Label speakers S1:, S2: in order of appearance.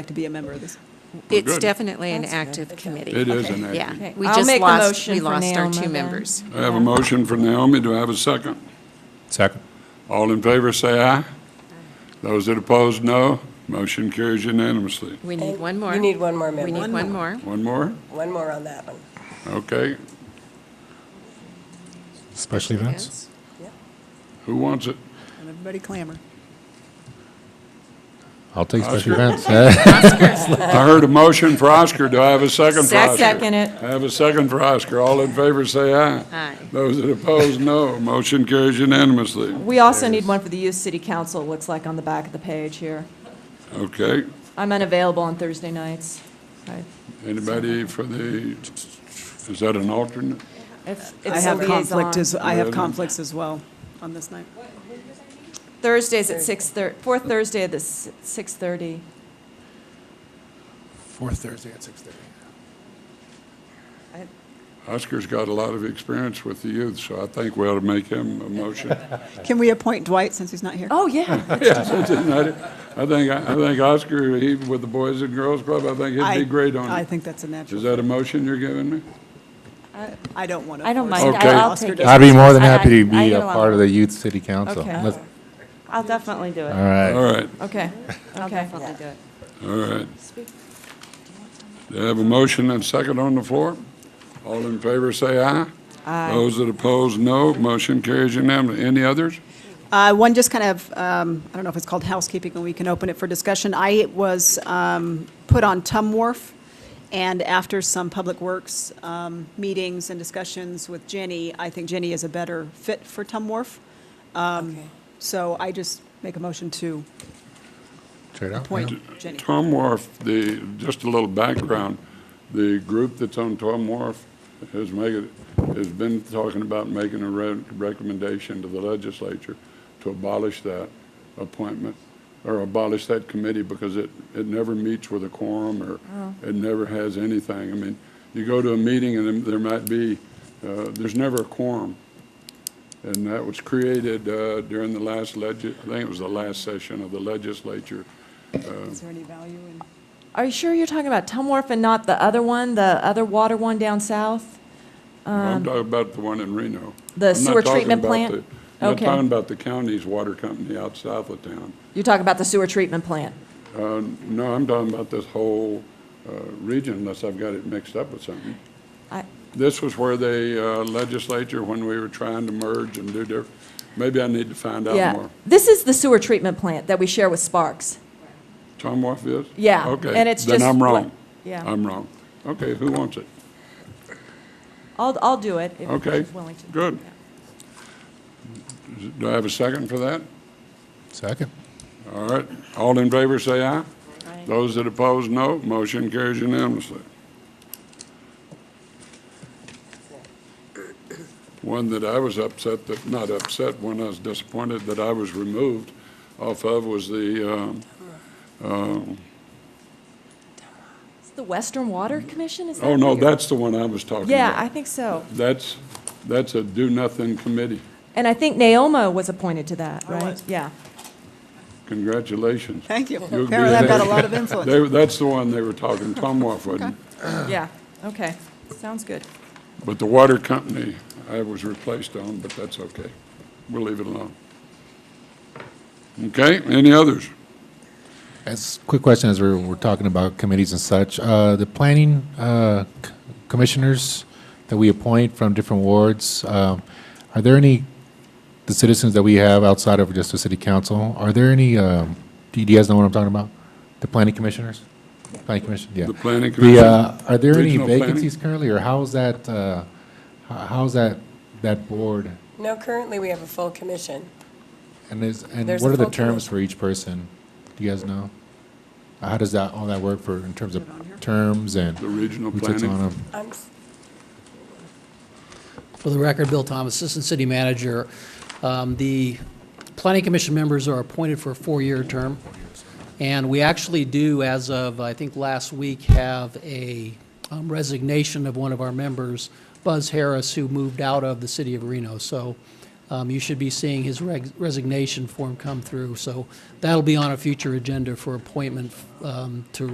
S1: like to be a member of this.
S2: It's
S3: Good.
S2: definitely an
S4: That's good.
S2: active committee.
S3: It is an
S2: Yeah,
S3: act.
S2: we
S4: I'll
S2: just
S4: make a
S2: lost,
S4: motion
S2: we
S4: for
S2: lost our
S4: Naomi
S2: two
S4: then.
S2: members.
S3: I have a motion for Naomi. Do I have a second?
S5: Second.
S3: All in favor, say aye. Those that oppose, no. Motion carries unanimously.
S2: We need one more.
S4: You need one more member.
S2: We need one more.
S3: One more?
S4: One more on that one.
S3: Okay.
S5: Special events?
S3: Who wants it?
S1: And everybody clamor.
S5: I'll take
S3: Oscar.
S5: special events.
S3: I heard a motion for Oscar. Do I have a second for Oscar?
S2: Second
S4: it.
S3: I have a second for Oscar. All in favor, say aye.
S2: Aye.
S3: Those that oppose, no. Motion carries unanimously.
S6: We also need one for the youth city council, it looks like on the back of the page here.
S3: Okay.
S6: I'm unavailable on Thursday nights. I-
S3: Anybody for the, is that an alternate?
S6: if-
S1: I
S6: it's a
S1: have conflict
S6: liaison.
S1: as, I have
S3: Really?
S1: conflicts as well on this night.
S6: Thursdays at 6:30, fourth Thursday at the s- 6:30.
S5: Fourth Thursday at 6:30.
S3: Oscar's got a lot of experience with the youth, so I think we ought to make him a motion.
S1: Can we appoint Dwight since he's not here?
S6: Oh, yeah.
S3: Yes, I did. I did. I think, I think Oscar, he, with the Boys and Girls Club, I think
S1: I-
S3: he'd be great
S1: I
S3: on it.
S1: think that's a
S3: Is
S1: natural.
S3: that a motion you're giving me?
S1: I don't want to.
S7: I don't
S3: I'll-
S7: mind,
S3: Okay. I'll
S7: I'll
S1: take
S7: take
S1: it.
S7: it.
S5: I'd be more than
S7: I-
S5: happy to
S7: I- I
S5: be
S7: get
S5: a
S7: along
S5: part of
S7: with
S5: the youth city council.
S6: Okay.
S5: Let's-
S7: I'll definitely do it.
S5: All right.
S3: All right,
S6: Okay,
S7: I'll
S6: okay.
S7: definitely do it.
S3: all right. Do you have a motion and second on the floor? All in favor, say aye. Aye. Those that oppose, no. Motion carries unanimously. Any others?
S1: Uh, One just kind of, um, I don't know if it's called housekeeping, and we can open it for discussion. I was um, put on Tum Wharf, and after some Public Works um, meetings and discussions with Jenny, I think Jenny is a better fit for Tum Wharf. Um,
S4: Okay.
S1: So I just make a motion to
S5: Straight out.
S1: appoint
S5: yeah.
S1: Jenny.
S3: Tom Wharf, the, just a little background, the group that's on Tom Wharf has made, has been talking about making a re- recommendation to the legislature to abolish that appointment, or abolish that committee, because it, it never meets with a quorum, or it never has anything. I mean, you go to a meeting and there might be, uh, there's never a quorum. And that was created uh, during the last legis, I think it was the last session of the legislature,
S1: Is there any value in?
S6: Are you sure you're talking about Tumwharf and not the other one, the other water one down south?
S3: I'm talking about the one in Reno.
S6: Um, the
S3: I'm not
S6: sewer
S3: talking
S6: treatment
S3: about
S6: plant?
S3: the- I'm not
S6: Okay.
S3: talking about the county's water company out south of town.
S6: You're talking about the sewer treatment plant?
S3: No, I'm talking about this whole uh, region, unless I've got it mixed up with something.
S6: I-
S3: This was where the uh, legislature, when we were trying to merge and do different, maybe I need to find out
S6: Yeah.
S3: more.
S6: This is the sewer treatment plant that we share with Sparks.
S3: Tom Wolf is?
S6: Yeah,
S3: Okay,
S6: and it's
S3: Then
S6: just
S3: I'm
S6: what-
S3: wrong.
S6: yeah.
S3: I'm wrong. Okay, who wants it?
S6: I'll, I'll do it if
S3: Okay,
S6: she's willing to.
S3: good. Do I have a second for that?
S5: Second.
S3: All right, all in favor, say aye. Those that oppose, no. Motion carries unanimously. One that I was upset, that, not upset, one I was disappointed that I was removed off of was the, um,
S6: It's the Western Water Commission, is that?
S3: oh, no,
S6: what you're-
S3: that's the one I was talking about.
S6: Yeah, I think so.
S3: That's, that's a do-nothing committee.
S6: And I think Naoma was appointed to that,
S1: I
S6: right?
S1: was.
S6: Yeah.
S3: Congratulations.
S1: Thank you.
S3: You'll be
S1: Apparently, I've got a
S3: there.
S1: lot of influence.
S3: They- That's the one they were talking, Tom Wolf, wasn't it?
S6: Yeah, okay. Sounds good.
S3: But the water company, I was replaced on, but that's okay. We'll leave it alone. Okay, any others?
S5: As, quick question, as we're, we're talking about committees and such, uh, the planning, uh, c- commissioners that we appoint from different wards, um, are there any, the citizens that we have outside of just the city council, are there any, um, do you guys know what I'm talking about? The planning commissioners? Planning commission, yeah.
S3: The planning
S5: The,
S3: commission?
S5: uh, are there any
S3: Regional planning?
S5: vacancies currently, or how's that, uh, h- how's that, that board?
S4: No, currently, we have a full commission.
S5: And is, and
S4: There's
S5: what
S4: a
S5: are the
S4: full
S5: terms
S4: committee.
S5: for each person? Do you guys know? How does that, all that work for, in terms of terms and?
S3: The regional
S5: who sits on
S3: planning?
S5: 'em?
S4: I'm, s-
S8: For the record, Bill Thomas, Assistant City Manager. Um, The Planning Commission members are appointed for a four-year term, and we actually do, as of, I think, last week, have a um, resignation of one of our members, Buzz Harris, who moved out of the city of Reno. So um, you should be seeing his reg- resignation form come through. So that'll be on a future agenda for appointment um, to